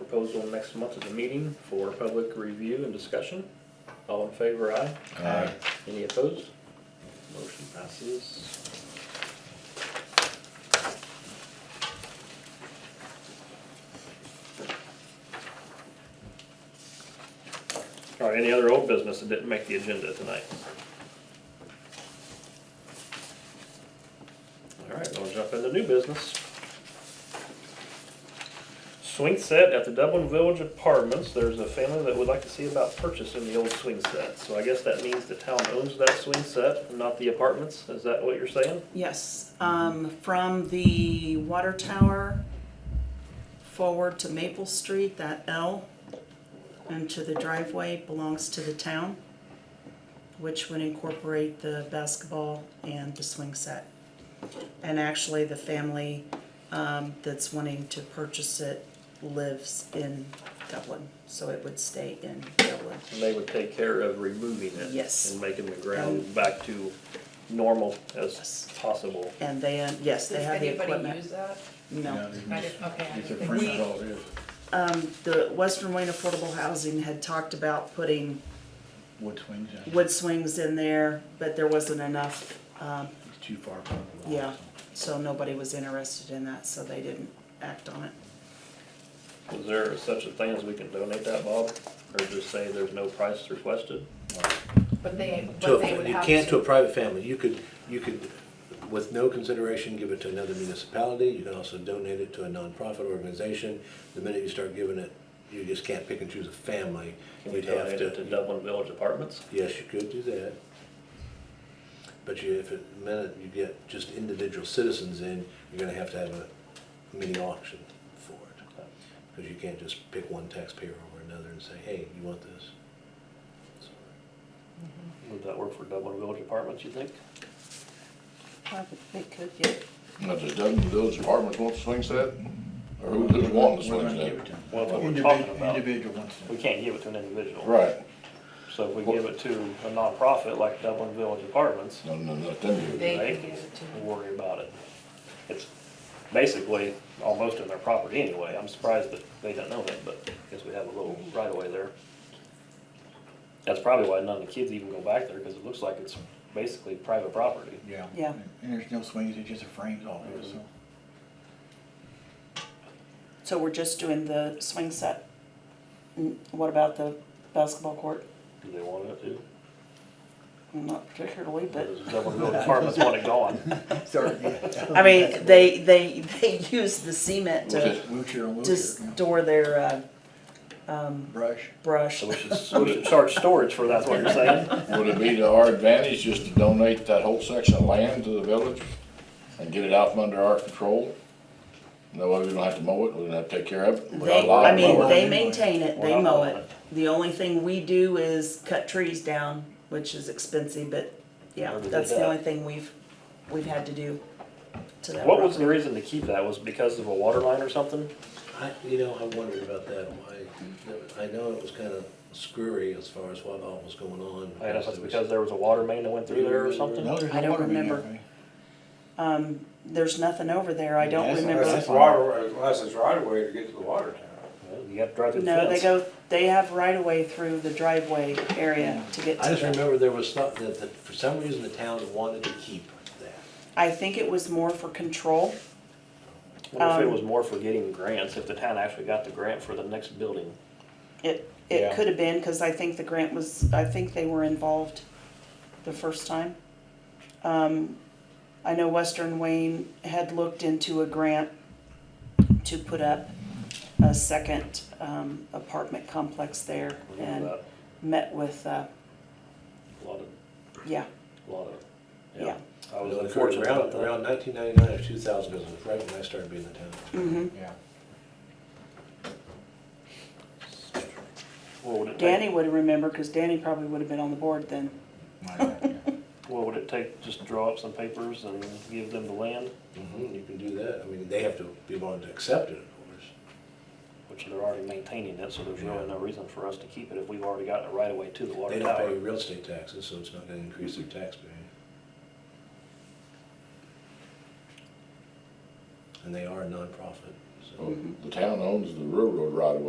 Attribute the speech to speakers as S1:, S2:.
S1: proposal next month at the meeting for public review and discussion. All in favor, aye?
S2: Aye.
S1: Any opposed? Motion passes. All right, any other old business that didn't make the agenda tonight? All right, we'll jump into new business. Swing set at the Dublin Village Apartments, there's a family that would like to see about purchasing the old swing set. So I guess that means the town owns that swing set, not the apartments, is that what you're saying?
S3: Yes, um, from the water tower forward to Maple Street, that L, and to the driveway belongs to the town, which would incorporate the basketball and the swing set. And actually, the family, um, that's wanting to purchase it lives in Dublin, so it would stay in Dublin.
S1: And they would take care of removing it.
S3: Yes. Um,
S1: And making the ground back to normal as
S3: Yes.
S1: possible.
S3: And they, uh, yes, they
S4: Does
S3: have the
S4: anybody
S3: equipment.
S4: use that?
S3: No.
S4: I didn't, okay. I
S2: It's a
S4: didn't think
S2: fringe
S4: we-
S2: all it is,
S3: Um, the Western Wayne Affordable Housing had talked about putting
S2: wood swings, yeah.
S3: wood swings in there, but there wasn't enough, um,
S2: it's too far from the wall.
S3: yeah. So nobody was interested in that, so they didn't act on it.
S1: Is there such a thing as we can donate that, Bob? Or just say there's no price requested?
S4: But they,
S5: To,
S4: but they would
S5: a- you
S4: have to.
S5: can't to a private family, you could, you could, with no consideration, give it to another municipality, you can also donate it to a nonprofit organization. The minute you start giving it, you just can't pick and choose a family,
S1: Can we
S5: you'd have
S1: donate it to
S5: to,
S1: Dublin Village Apartments?
S5: yes, you could do that. But you, if it, the minute you get just individual citizens in, you're gonna have to have a mini auction for it. Because you can't just pick one taxpayer over another and say, hey, you want this? So-
S1: Would that work for Dublin Village Apartments, you think?
S3: They could, yeah.
S6: Now, does Dublin Village Apartments want the swing set? Or who-
S2: We're
S6: who's wanting the
S2: gonna
S6: swing
S2: give it
S6: set?
S2: to them.
S1: Well, that's what we're talking
S2: Individ-
S1: about.
S2: Individual ones.
S1: We can't give it to an individual.
S6: Right,
S1: So if we give it to a nonprofit like Dublin Village Apartments,
S6: no, no, no, them you.
S4: They
S1: Right.
S4: can give it to
S1: we
S4: them.
S1: worry about it. It's basically almost in their property anyway. I'm surprised that they don't know that, but I guess we have a little right of way there. That's probably why none of the kids even go back there, because it looks like it's basically private property.
S2: Yeah.
S3: Yeah.
S2: And there's no swings, it's just a frames all it is, so.
S3: So we're just doing the swing set. Mm, What about the basketball court?
S1: Do they want it to?
S3: Not particularly,
S1: Or
S3: but,
S1: does Dublin Village Apartments want it gone?
S2: Sorry, yeah.
S3: I mean, they, they, they use the cement to,
S2: Wheelchair on
S3: to
S2: wheelchair, yeah.
S3: store their, uh,
S2: brush.
S3: brush.
S1: So we should, we should charge storage for that's what you're saying?
S6: Would it be to our advantage just to donate that whole section of land to the village and get it out from under our control? No, we don't have to mow it, we don't have to take care of it. We
S3: They,
S6: allow
S3: I
S6: it
S3: mean,
S6: mowed.
S3: they maintain it,
S1: Well,
S3: they
S1: I
S3: mow
S1: love
S3: it. The only thing we do is cut trees down, which is expensive, but yeah,
S1: Never did
S3: that's the
S1: that.
S3: only thing we've, we've had to do to that
S1: What was the
S3: property.
S1: reason to keep that? Was it because of a water line or something?
S5: I, you know, I wondered about that, why, I know it was kind of screwy as far as what all was going on.
S1: I don't know, if it's because there was a water main that went through there or something?
S2: No, there's
S3: I
S2: no
S3: don't
S2: water main
S3: remember.
S2: there. right?
S3: There's nothing over there, I don't
S2: Yes,
S3: remember.
S2: yes.
S7: Water, unless it's right away to get to the water tower.
S1: Well, You have to drive through the fence.
S3: No, they go, they have right of way through the driveway area to get
S5: I
S3: to
S5: just
S3: them.
S5: remember there was stuff that, that for some reason the town wanted to keep that.
S3: I think it was more for control.
S1: What if it
S3: Um,
S1: was more for getting grants, if the town actually got the grant for the next building?
S3: It,
S2: Yeah.
S3: it could have been, cause I think the grant was, I think they were involved the first time. Um, I know Western Wayne had looked into a grant to put up a second, um, apartment complex there
S1: Remember
S3: and
S1: that?
S3: met with, uh,
S1: A lot of,
S3: yeah,
S1: lot of, yeah.
S3: Yeah.
S1: I was
S5: It occurred
S1: unfortunate
S5: around-
S1: about that.
S5: Around nineteen ninety-nine or two thousand, because it was right when I started being in the
S3: mhm.
S5: town.
S2: Yeah.
S1: What would it
S3: Danny
S1: take,
S3: would remember, cause Danny probably would have been on the board then.
S2: My God, yeah.
S1: what would it take, just draw up some papers and give them the land,
S5: hmm you can do that, I mean, they have to be willing to accept it, of course.
S1: which they're already maintaining it, so there's really no reason for us to keep it if we've already gotten it right away to the
S5: They
S1: water
S5: don't pay
S1: tower.
S5: real estate taxes, so it's not gonna increase their tax bill. And they are a nonprofit, so.
S6: Well, The town owns the railroad right away.